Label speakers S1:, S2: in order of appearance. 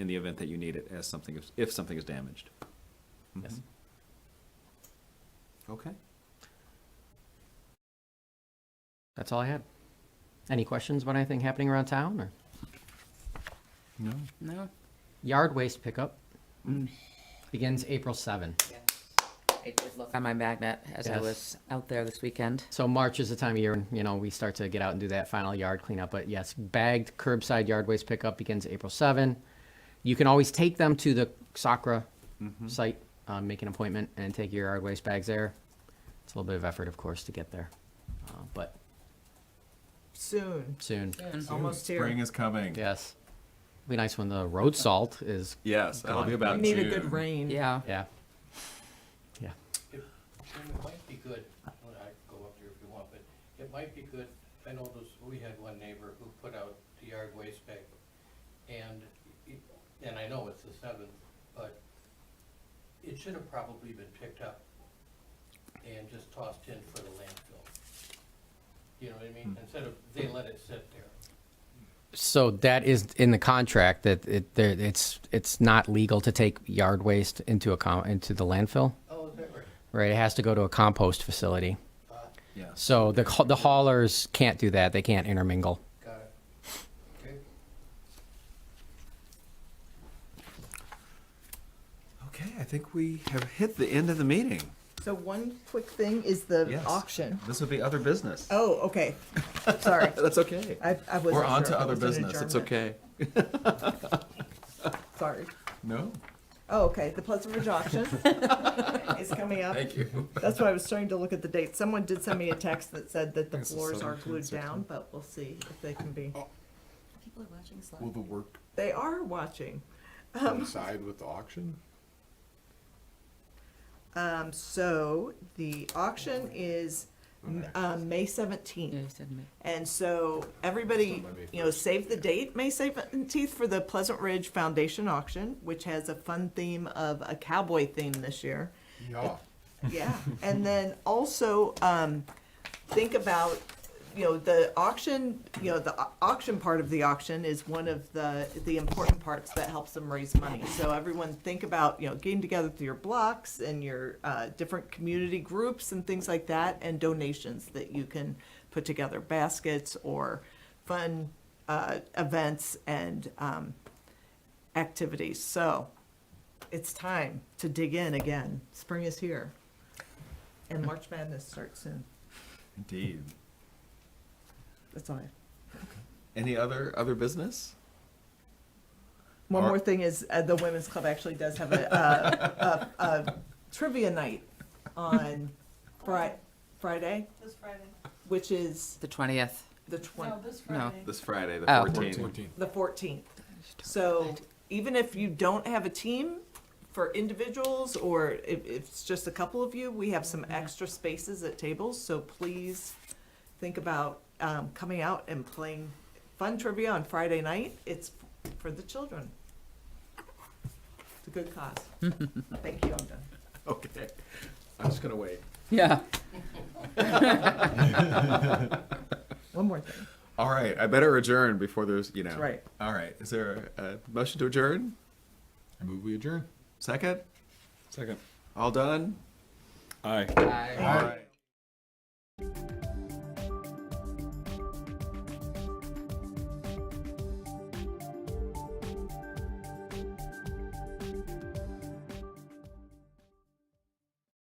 S1: in the event that you need it as something, is- if something is damaged.
S2: Mm-hmm.
S3: Yes.
S1: Okay.
S3: That's all I had. Any questions about anything happening around town or
S1: No.
S4: No.
S3: yard waste pickup? Begins April 7.
S4: I did look on my magnet as I
S3: Yes.
S4: was out there this weekend.
S3: So March is the time of year, when, you know, we start to get out and do that final yard cleanup. But yes, bagged curbside yard waste pickup begins April 7. You can always take them to the Sacra site, um, make an appointment and take your yard waste bags there. It's a little bit of effort, of course, to get there, uh, but
S5: Soon.
S3: soon.
S5: Almost here.
S2: Spring is coming.
S3: Yes. Be nice when the road salt is,
S2: Yes, that'll be
S5: We
S2: about
S5: need a
S2: June.
S5: good rain.
S4: Yeah.
S3: yeah. Yeah.
S6: And it might be good, well, I can go up there if you want, but it might be good, I know those, we had one neighbor who put out the yard waste bag. And, it- and I know it's the seventh, but it should have probably been picked up and just tossed in for the landfill. You know what I mean? Instead of, they let it sit there.
S3: So that is in the contract that it, there, it's, it's not legal to take yard waste into a com, into the landfill,
S6: Oh, is that right?
S3: right? It has to go to a compost facility.
S1: Yes.
S3: So the, ha- the haulers can't do that. They can't intermingle.
S6: Got it. Okay.
S1: Okay, I think we have hit the end of the meeting.
S5: So one quick thing is the
S1: Yes.
S5: auction.
S1: This would be other business.
S5: Oh, okay. Sorry.
S1: That's okay.
S5: I, I wasn't
S2: We're on to
S5: sure if it
S2: other
S5: was an
S2: business. It's
S5: adjournment.
S2: okay.
S5: Sorry.
S2: No?
S5: Oh, okay. The Pleasant Ridge auction is coming up.
S2: Thank you.
S5: That's why I was starting to look at the date. Someone did send me a text that said that the
S2: It's the
S5: floors are
S2: 17th,
S5: glued down,
S2: 16th.
S5: but we'll see if they can be.
S4: People are watching
S2: Will the work
S5: They are watching.
S2: coincide with the auction?
S5: Um, so the auction is, um, May seventeenth.
S4: Yeah, you said me.
S5: And so everybody, you know, save the date, May seventeenth, for the Pleasant Ridge Foundation auction, which has a fun theme of a cowboy theme this year.
S2: Yeah.
S5: Yeah, and then also, um, think about, you know, the auction, you know, the au- auction part of the auction is one of the, the important parts that helps them raise money. So everyone think about, you know, getting together through your blocks and your, uh, different community groups and things like that, and donations that you can put together, baskets or fun, uh, events and, um, activities. So, it's time to dig in again. Spring is here. And March Madness starts soon.
S2: Indeed.
S5: That's all I have.
S2: Any other, other business?
S5: One
S2: Are-
S5: more thing is, uh, the Women's Club actually does have a, uh, a, a trivia night on Fri- Friday,
S7: This Friday.
S5: which is
S4: The twentieth.
S5: the twen-
S7: No, this
S4: No.
S7: Friday.
S2: This Friday, the
S4: Oh.
S2: 14th.
S5: the fourteenth. So even if you don't have a team for individuals or if, if it's just a couple of you, we have some extra spaces at tables, so please think about, um, coming out and playing fun trivia on Friday night. It's for the children. It's a good cause. Thank you, I'm done.
S2: Okay. I'm just gonna wait.
S4: Yeah.
S5: One more thing.
S2: All right, I better adjourn before there's, you know.
S5: right.
S2: All right, is there a a motion to adjourn?
S8: I move we adjourn.
S2: Second?
S8: Second.
S2: All done?
S8: Aye.
S2: All right.